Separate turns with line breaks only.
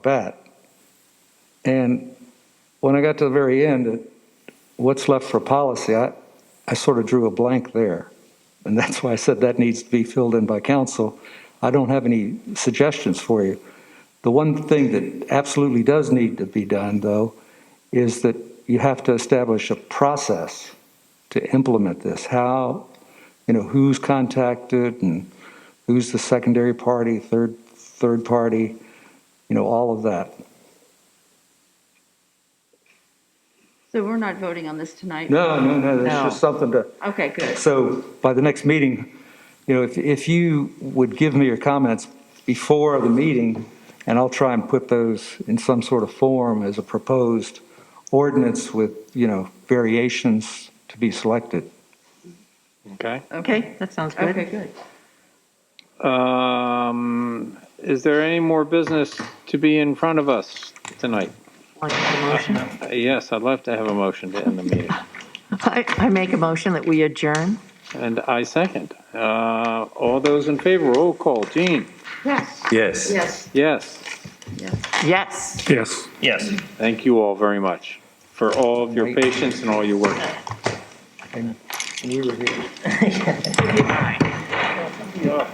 bat. And when I got to the very end, it- what's left for policy, I, I sort of drew a blank there. And that's why I said that needs to be filled in by council. I don't have any suggestions for you. The one thing that absolutely does need to be done, though, is that you have to establish a process to implement this. How, you know, who's contacted and who's the secondary party, third, third party, you know, all of that.
So we're not voting on this tonight?
No, no, no, that's
No.
just something to,
Okay, good.
so by the next meeting, you know, if, if you would give me your comments before the meeting, and I'll try and put those in some sort of form as a proposed ordinance with, you know, variations to be selected.
Okay.
Okay, that sounds
Okay,
good.
good.
Um, is there any more business to be in front of us tonight?
Want to make a motion?
Uh, Yes, I'd love to have a motion to end the meeting.
I, I make a motion that we adjourn.
And I second. Uh, all those in favor, roll call. Gene?
Yes.
Yes.
Yes.
Yes.
Yes.
Yes.
Yes.
Thank you all very much for all of your patience and all your work.
And we were here.